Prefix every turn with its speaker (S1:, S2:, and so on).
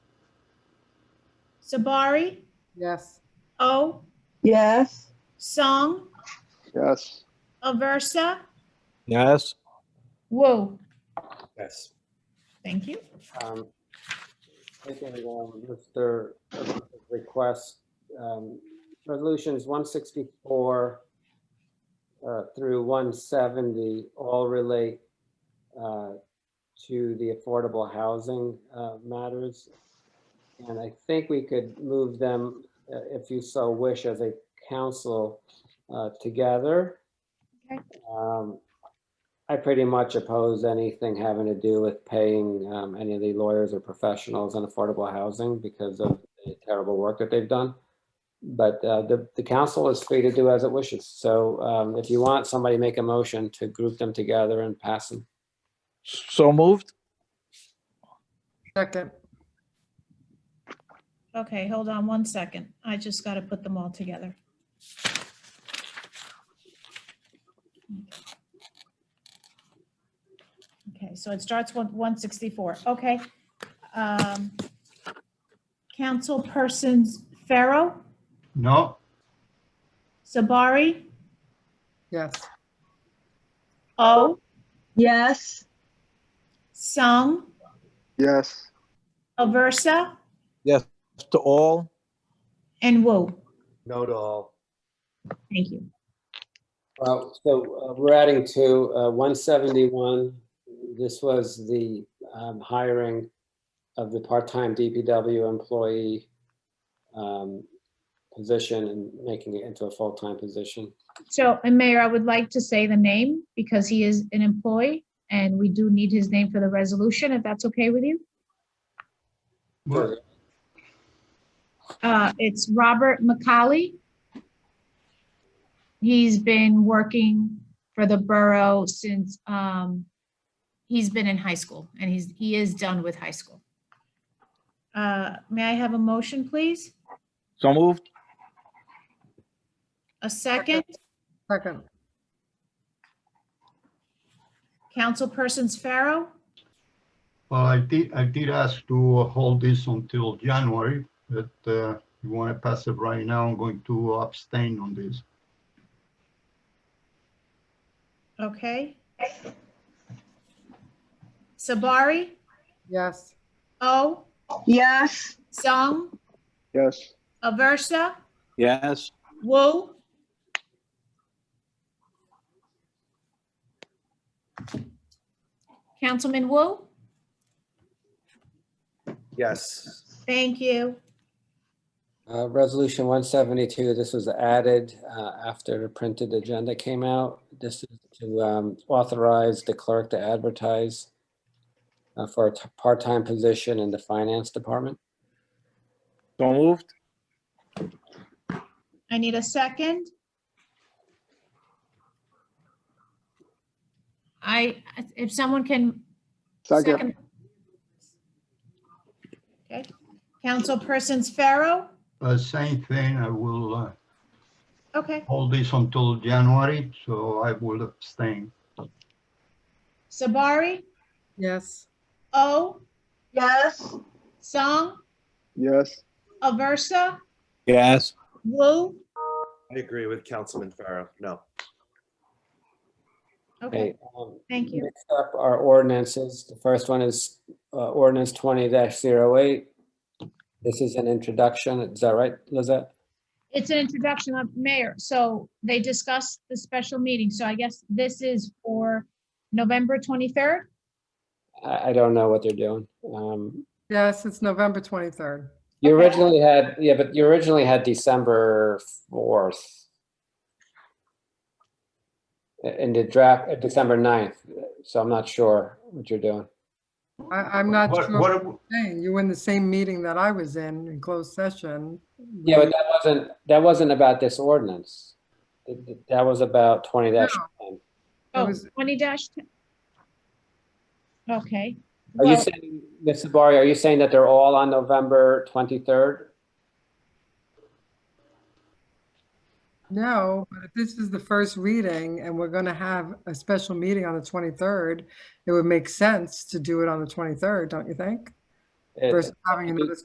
S1: Sabari,
S2: Yes.
S1: O,
S3: yes,
S1: Song,
S4: yes,
S1: Aversa,
S5: Yes.
S1: Woo.
S6: Yes.
S1: Thank you.
S6: Um, Taking um, Mr. Urban's request, um, resolutions 164 uh, through 170 all relate uh, to the affordable housing uh, matters. And I think we could move them, uh, if you so wish, as a council uh, together.
S1: Okay.
S6: Um, I pretty much oppose anything having to do with paying um, any of the lawyers or professionals in affordable housing because of the terrible work that they've done. But uh, the, the council is free to do as it wishes. So um, if you want, somebody make a motion to group them together and pass them.
S5: So moved?
S2: Second.
S1: Okay, hold on one second. I just got to put them all together. Okay, so it starts with 164. Okay. Um, Councilpersons Pharaoh,
S7: no,
S1: Sabari,
S2: Yes.
S1: O,
S3: yes,
S1: Sung,
S4: yes,
S1: Aversa,
S5: To all?
S1: and Wu.
S6: No to all.
S1: Thank you.
S6: Well, so uh, we're adding to uh, 171. This was the um, hiring of the part-time DPW employee um, position and making it into a full-time position.
S1: So, and Mayor, I would like to say the name because he is an employee and we do need his name for the resolution, if that's okay with you.
S7: Mo-
S1: Uh, It's Robert McCauley. He's been working for the borough since, um, he's been in high school and he's, he is done with high school. Uh, May I have a motion, please?
S5: So moved?
S1: A second?
S2: Second.
S1: Councilpersons Pharaoh,
S7: well, I did, I did ask to hold this until January, but uh, you want to pass it right now, I'm going to abstain on this.
S1: okay. Sabari, Oh.
S2: Yes.
S1: O,
S3: yes.
S1: Sung,
S4: yes,
S1: Aversa,
S5: Yes.
S1: Wu. Councilman Wu,
S6: Yes.
S1: thank you.
S6: Uh, Resolution 172, this was added uh, after the printed agenda came out. This is to um, authorize the clerk to advertise uh, for a t- part-time position in the finance department.
S5: So moved?
S1: I need a second. I, if someone can.
S4: second,
S1: Okay, Councilpersons Pharaoh,
S7: Uh, Same thing, I will uh,
S1: okay,
S7: hold this until January, so I will abstain.
S1: Sabari,
S2: Yes.
S1: O,
S3: Yes,
S1: Song,
S4: yes.
S1: Aversa,
S5: Yes.
S1: Wu.
S8: I agree with Councilman Farrow. No.
S1: Okay,
S6: Okay, um,
S1: thank you.
S6: Next up are ordinances. The first one is uh, ordinance 20-08. This is an introduction. Is that right, Lizette?
S1: It's an introduction of mayor, so they discussed the special meeting, so I guess this is for November twenty-third?
S6: I, I don't know what they're doing. Um,
S2: Yes, it's November 23rd.
S6: You
S1: Okay.
S6: originally had, yeah, but you originally had December 4th. I- In the draft, uh, December 9th, so I'm not sure what you're doing.
S2: I, I'm not
S7: What,
S2: sure.
S7: what,
S2: what
S7: ab-
S2: you're saying. You were in the same meeting that I was in, in closed session.
S6: Yeah, but that wasn't, that wasn't about this ordinance. Th- th- That was about 20 dash. Are
S2: It
S1: Oh,
S2: was-
S1: 20 dash. Okay.
S6: you
S1: Well,
S6: saying, Ms. Sabari, are you saying that they're all on November 23rd?
S2: No, but if this is the first reading and we're going to have a special meeting on the 23rd, it would make sense to do it on the 23rd, don't you think?
S6: It-
S2: Versus having another